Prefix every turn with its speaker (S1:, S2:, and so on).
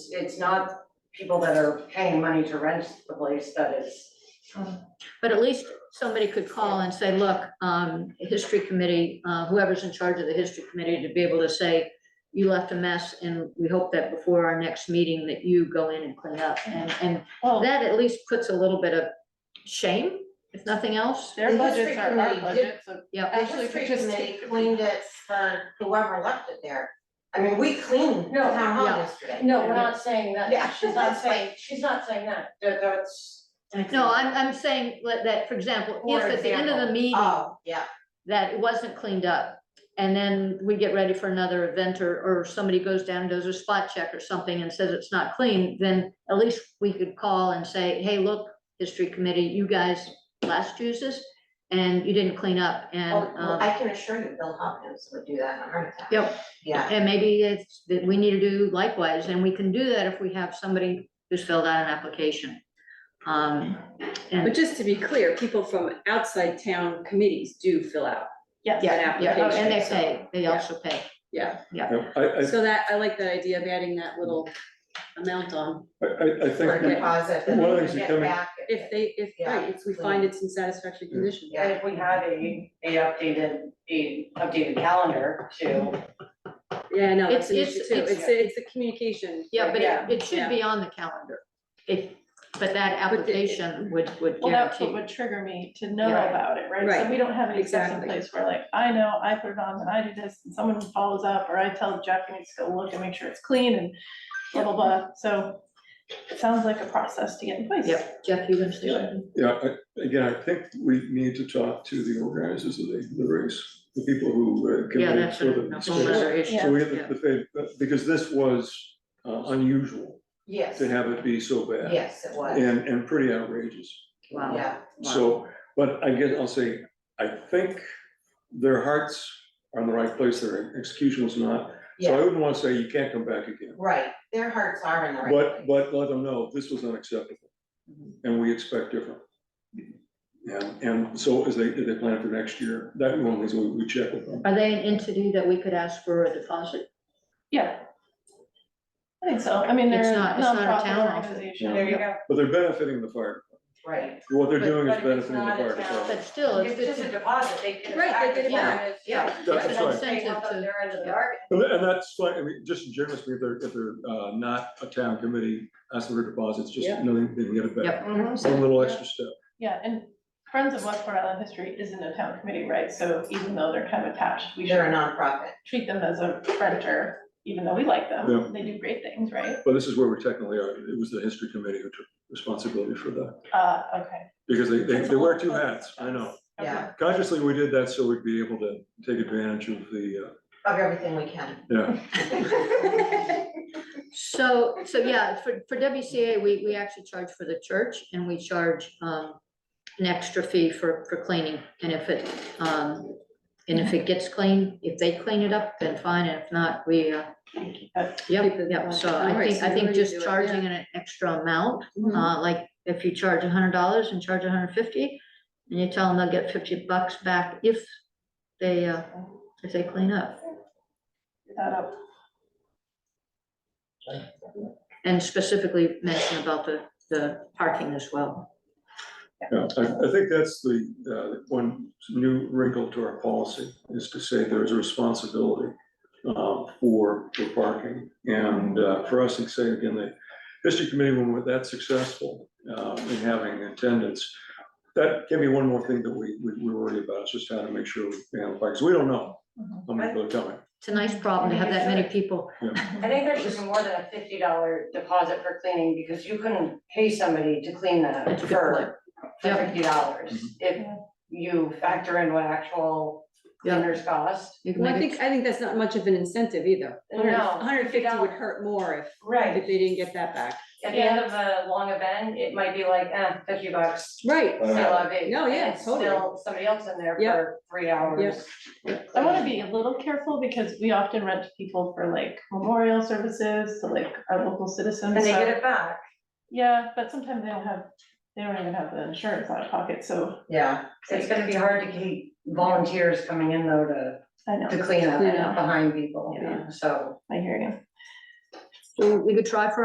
S1: it's not people that are paying money to rent the place that is.
S2: But at least somebody could call and say, look, um, history committee, uh, whoever's in charge of the history committee to be able to say, you left a mess and we hope that before our next meeting that you go in and clean up. And, and
S1: Oh.
S3: Well,
S2: that at least puts a little bit of shame, if nothing else.
S3: their
S1: The
S3: budgets
S1: history
S3: are our
S1: committee did-
S3: budgets, so
S2: Yeah,
S3: actually, if we just
S1: They
S3: take-
S1: cleaned it for whoever left it there. I mean, we cleaned
S4: No.
S1: town hall
S2: Yeah.
S1: yesterday.
S4: No, we're not saying
S1: Yeah.
S4: that, she's not saying, she's not saying that.
S1: That- that's-
S2: no, I'm, I'm saying let- that, for example, if
S1: For
S2: at the end of the
S1: example.
S2: meeting,
S1: Oh, yeah,
S2: that it wasn't cleaned up. And then we get ready for another event or, or somebody goes down, and does a spot check or something and says it's not clean, then at least we could call and say, hey, look, history committee, you guys last used this and you didn't clean up and,
S1: Oh, well,
S2: um,
S1: I can assure you, Bill Hopkins would do that in a heart attack.
S2: Yep.
S1: Yeah,
S2: and maybe it's, that we need to do likewise. And we can do that if we have somebody who's filled out an application. Um,
S5: But
S2: and,
S5: just to be clear, people from outside town committees do fill out
S3: yes.
S5: an
S2: yeah, Oh,
S5: application.
S2: and they
S5: so-
S2: pay, they also pay.
S5: Yeah,
S6: Yeah, I, I,
S5: so that, I like that idea of adding that little amount on,
S6: I, I-
S1: for a
S6: I think, we-
S1: deposit that
S6: One of the
S1: we
S6: things that
S1: get
S6: come in-
S1: back.
S5: if they, if, right, if we find it's in satisfactory condition.
S1: Yeah.
S4: if we had a, a updated, a updated calendar too.
S5: Yeah, no, that's an
S2: It's-
S5: issue
S2: it's-
S5: too,
S2: it's-
S5: it's, a- it's the communication.
S2: Yeah, but
S4: Yeah.
S2: it, it should be on the calendar. If, but that
S5: But the-
S2: application would, would
S3: Well, that's what
S2: guarantee.
S3: would trigger me to know
S2: Yeah.
S3: about it, right? So
S5: Right.
S3: we don't have any steps in
S5: Exactly.
S3: place where like, I know, I put it on and I do this and someone follows up or I tell Jeff he needs to go look and make sure it's clean and blah, blah, blah. So it sounds like a process to get in place.
S2: Yep, Jeff, you gonna say it?
S6: yeah, I, again, I think we need to talk to the organizers of the, the race, the people who uh,
S2: Yeah,
S6: committed
S2: that's
S6: for
S2: a
S6: the.
S2: a whole other issue.
S6: So we have,
S2: yeah.
S6: the- the, fa- uh, because this was uh, unusual
S1: Yes,
S6: to have it be so bad.
S1: yes, it was,
S6: And, and pretty outrageous.
S2: Wow.
S1: yeah.
S2: Wow.
S6: So, but I guess I'll say, I think their hearts are in the right place, their execution was not. So
S1: Yeah.
S6: I wouldn't wanna say you can't come back again,
S1: Right, their hearts are in the right place.
S6: but, but let them know, this was unacceptable. And we expect different. And, and so as they, as they plan for next year, that one is we, we check with them.
S2: Are they an entity that we could ask for a deposit?
S3: Yeah. I think so. I mean,
S2: It's
S3: they're a
S2: not- it's not a town
S3: nonprofit
S2: office.
S3: organization.
S4: There you go.
S6: But they're benefiting the fire,
S1: Right,
S6: what they're
S2: But-
S6: doing is
S4: but if it's
S6: benefiting the
S4: not a
S6: fire
S4: town-
S6: department.
S2: But still, if
S4: It's
S2: it's,
S4: just a deposit, they get it
S5: Right,
S4: back.
S5: they get it back, yeah.
S6: That's
S4: It's
S6: right.
S4: an incentive to their end of the bargain.
S6: And tha- and that's why, I mean, just generally, if they're, if they're, uh, not a town committee, asking for deposits, just
S5: Yeah.
S6: knowing they can get it back.
S2: Yep.
S4: Mm-hmm.
S6: One little extra step.
S3: Yeah, and Friends of Westport Island History isn't a town committee, right? So even though they're kind of attached, we
S1: they're a
S3: should
S1: nonprofit,
S3: treat them as a renter, even though we like
S6: Yeah.
S3: them. They do great things, right?
S6: But this is where we technically are. It was the history committee who took responsibility for that,
S3: Uh, okay.
S6: because they, they,
S3: That's
S6: they wear
S3: all
S6: two
S3: part of
S6: hats, I know.
S3: Okay.
S1: yeah,
S6: Consciously, we did that so we'd be able to take advantage of the, uh,
S1: of everything we can.
S6: yeah,
S2: so, so yeah, for, for WCA, we, we actually charge for the church and we charge, um, an extra fee for, for cleaning. And if it, um, and if it gets clean, if they clean it up, then fine. And if not, we, uh,
S3: But
S2: yep,
S5: Keep it
S2: yep. So
S5: going.
S2: I
S5: Alright,
S2: think,
S5: so
S2: I think
S5: whatever you
S2: just
S5: do it,
S2: charging an extra amount
S5: Mhm.
S2: Uh, like if you charge hundred dollars and charge $150, and you tell them they'll get fifty bucks back if they, uh, if they clean up.
S3: that up.
S2: And specifically mention about the, the parking as well.
S6: yeah. I, I think that's the, uh, one new wrinkle to our policy, is to say there is a responsibility, uh, for, for parking. And, uh, for us, and say again, the history committee, when we're that successful, uh, in having attendance, that can be one more thing that we, we, we worry about, is just how to make sure we, handle because we don't know how many people are coming.
S2: It's a nice problem to have that many people.
S4: I think there should be more than a fifty dollar deposit for cleaning, because you couldn't pay somebody to clean that
S2: That's a good point.
S4: for for
S2: Yeah.
S4: fifty dollars. If you factor in what actual
S2: Yeah.
S4: cleaners cost.
S2: You can
S5: Well, I
S2: make
S5: think,
S2: it-
S5: I think that's not much of an incentive either.
S4: No,
S5: Hundred fifty
S4: $50
S5: would hurt more if,
S4: Right.
S5: if they didn't get that back.
S4: At the end of a long event, it might be like, eh, fifty bucks,
S5: Right,
S4: still a big.
S5: No, yeah,
S4: and it's
S5: totally.
S4: Still somebody else in there
S5: Yep.
S4: for three hours.
S3: I wanna be a little careful because we often rent to people for like memorial services to like our local citizens.
S4: And they
S3: so-
S4: get it back.
S3: Yeah, but sometimes they don't have, they don't even have the insurance out of pocket, so
S1: Yeah,
S4: It's gonna be hard to keep volunteers coming in though to,
S3: I know,
S4: to clean up
S5: Clean up.
S4: behind people,
S3: Yeah.
S4: so.
S3: I hear you.
S2: we could try for